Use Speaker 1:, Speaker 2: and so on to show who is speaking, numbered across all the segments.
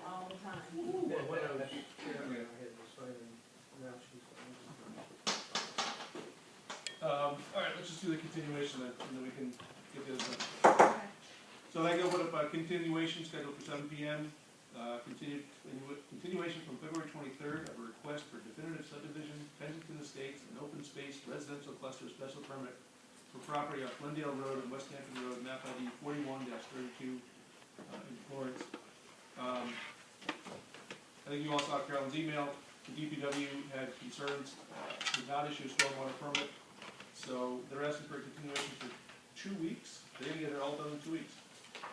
Speaker 1: time.
Speaker 2: Ooh,
Speaker 3: That-
Speaker 2: what
Speaker 3: that-
Speaker 2: else?
Speaker 3: that- yeah, I had this right in. Now she's gone.
Speaker 2: Um, all right, let's just do the continuation then, and then we can get the other done.
Speaker 1: Okay.
Speaker 2: So I go with a continuation scheduled for seven P M, uh, continued, continuation from February twenty-third of a request for definitive subdivision, Kensington Estates, an open space residential cluster special permit for property off Glendale Road and West Hampton Road, map ID forty-one thirty-two, uh, in Florence. Um, I think you all saw Carolyn's email, the DPW had concerns, uh, did not issue a stormwater permit, so they're asking for a continuation for two weeks, they didn't get it all done in two weeks.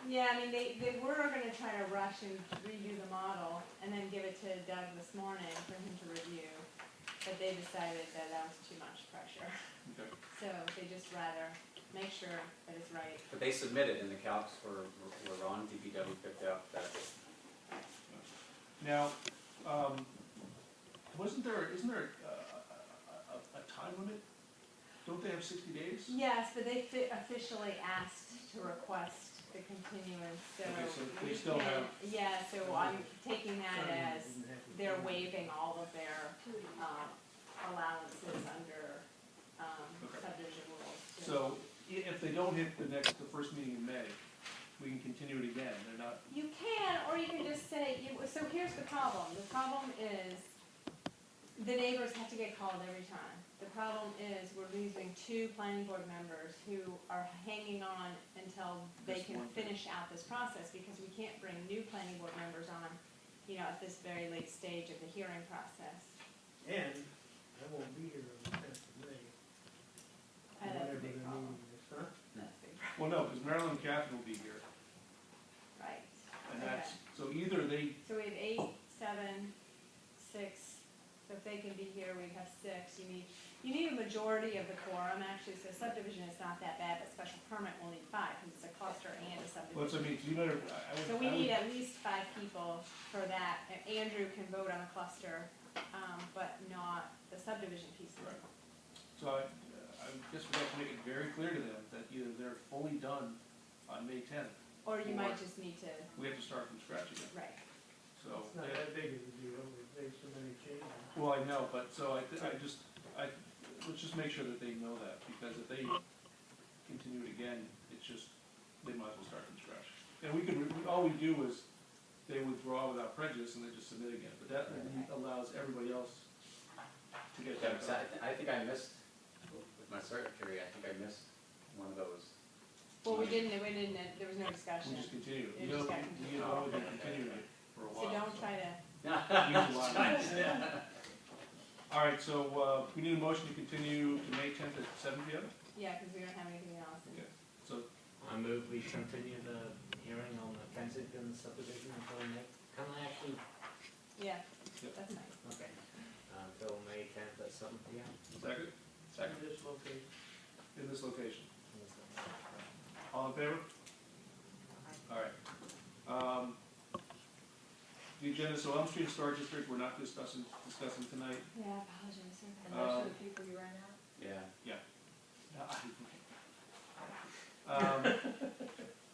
Speaker 1: Yeah, I mean, they, they were gonna try to rush and redo the model and then give it to Doug this morning for him to review. But they decided that that was too much pressure,
Speaker 2: Okay.
Speaker 1: so they just rather make sure that it's right.
Speaker 4: But they submitted and the calcs were, were were on, DPW picked up that.
Speaker 2: Now, um, wasn't there, isn't there a, a, a- a time limit? Don't they have sixty days?
Speaker 1: Yes, but they fi- officially asked to request the continuance, so.
Speaker 2: Okay, so they
Speaker 1: we
Speaker 2: still
Speaker 1: can-
Speaker 2: have-
Speaker 1: Yeah, so I'm taking that as
Speaker 3: Didn't have to-
Speaker 1: they're waiving all of their, um, allowances under, um,
Speaker 2: Okay.
Speaker 1: subdivision rules. too.
Speaker 2: So, i- if they don't hit the next, the first meeting in May, we can continue it again, they're not,
Speaker 1: You can, or you can just say, you, so here's the problem, the problem is, the neighbors have to get called every time. The problem is, we're losing two planning board members who are hanging on until they
Speaker 2: Just
Speaker 1: can
Speaker 2: one.
Speaker 1: finish out this process, because we can't bring new planning board members on, you know, at this very late stage of the hearing process.
Speaker 3: And I won't be here on the tenth of May.
Speaker 1: Uh, that's a
Speaker 3: whatever
Speaker 1: big
Speaker 3: the
Speaker 1: problem.
Speaker 3: meeting is, huh?
Speaker 1: That's the,
Speaker 2: well, no, because Marilyn and Catherine will be here,
Speaker 1: right.
Speaker 2: and
Speaker 1: Okay.
Speaker 2: that's, so either they,
Speaker 1: So we have eight, seven, six, so if they can be here, we'd have six, you need, you need a majority of the quorum, actually, so subdivision is not that bad, but special permit will need five, because it's a cluster and a
Speaker 2: well, that's, I
Speaker 1: subdivision.
Speaker 2: mean, you better, I- I
Speaker 1: So
Speaker 2: would,
Speaker 1: we
Speaker 2: I
Speaker 1: need
Speaker 2: would,
Speaker 1: at least five people for that, and Andrew can vote on a cluster, um, but not the subdivision pieces.
Speaker 2: Right. so I, uh, I guess we have to make it very clear to them that either they're fully done on May tenth,
Speaker 1: Or you might
Speaker 2: Or-
Speaker 1: just need to,
Speaker 2: we have to start from scratch again,
Speaker 1: right,
Speaker 2: so.
Speaker 3: It's not
Speaker 2: they-
Speaker 3: that big of a deal, we've made so many changes.
Speaker 2: Well, I know, but so I, th- I just, I, let's just make sure that they know that, because if they continue it again, it's just, they might as well start from scratch. And we could, we- all we do is, they withdraw without prejudice and they just submit again, but that allows everybody else to get
Speaker 4: Yeah,
Speaker 2: that.
Speaker 4: because I, I think I missed, with my secretary, I think I missed one of those.
Speaker 1: well, we didn't, we didn't, there was no discussion,
Speaker 2: We just continue,
Speaker 1: They
Speaker 2: you
Speaker 1: just
Speaker 2: know,
Speaker 1: got
Speaker 2: you know, we've been continuing it for a
Speaker 1: so
Speaker 2: while.
Speaker 1: don't try to,
Speaker 2: All right, so, uh, we need a motion to continue to May tenth at seven P M,
Speaker 1: yeah, because we don't have anything else.
Speaker 2: Okay. so
Speaker 5: I move we continue the hearing on the Kensington subdivision until May, can I actually,
Speaker 1: Yeah,
Speaker 2: Yep.
Speaker 1: that's nice.
Speaker 5: okay, until May tenth at seven P M?
Speaker 2: second,
Speaker 3: In this location.
Speaker 2: in this location. All in favor? All right. Um, The agenda, so Elm Street Historic District, we're not discussing, discussing tonight.
Speaker 1: Yeah, I apologize, sir.
Speaker 2: And those are the
Speaker 1: people you ran out?
Speaker 4: Yeah,
Speaker 2: Um,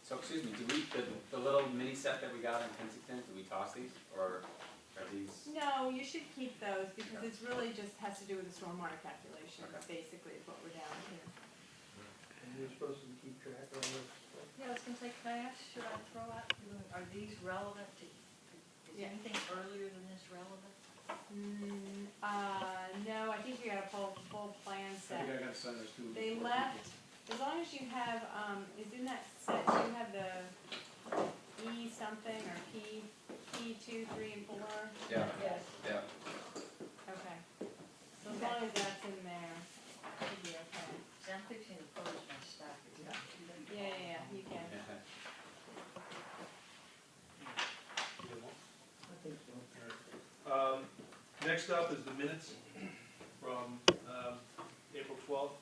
Speaker 4: so excuse me, do we, the, the little mini set that we got in Kensington, do we toss these, or are these?
Speaker 1: No, you should keep those, because it's really just has to do with the stormwater calculations, basically, is what we're down to.
Speaker 3: And you're supposed to keep track of this.
Speaker 6: Yeah, I was gonna say, can I ask, should I throw out, are these relevant to, is
Speaker 1: Yeah.
Speaker 6: anything earlier than this relevant?
Speaker 1: Mm, uh, no, I think you got a full, full plan
Speaker 2: I think I
Speaker 1: set.
Speaker 2: gotta sign those two.
Speaker 1: They left, as long as you have, um, is in that set, do you have the E something, or P, P two, three, and four?
Speaker 4: Yeah,
Speaker 6: Yes.
Speaker 4: yeah.
Speaker 1: Okay. So as long as that's in there, it should be okay.
Speaker 6: See, I'm fixing to close my stack. it's not too late.
Speaker 1: Yeah, yeah, yeah, you can.
Speaker 3: I think so.
Speaker 2: Um, Next up is the minutes from um, April twelfth.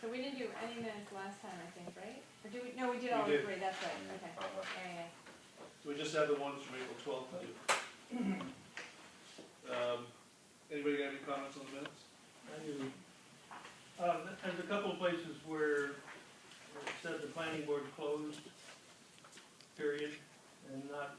Speaker 1: So we didn't do any minutes last time, I think, right? Or do we, no, we did
Speaker 2: We
Speaker 1: all
Speaker 2: did.
Speaker 1: three, that's right, okay.
Speaker 4: Probably.
Speaker 1: Yeah, yeah.
Speaker 2: So we just have the ones from April twelfth to do. Um, Anybody got any comments on the minutes?
Speaker 3: I do. Uh, th- there's a couple of places where it said the planning board closed, period, and not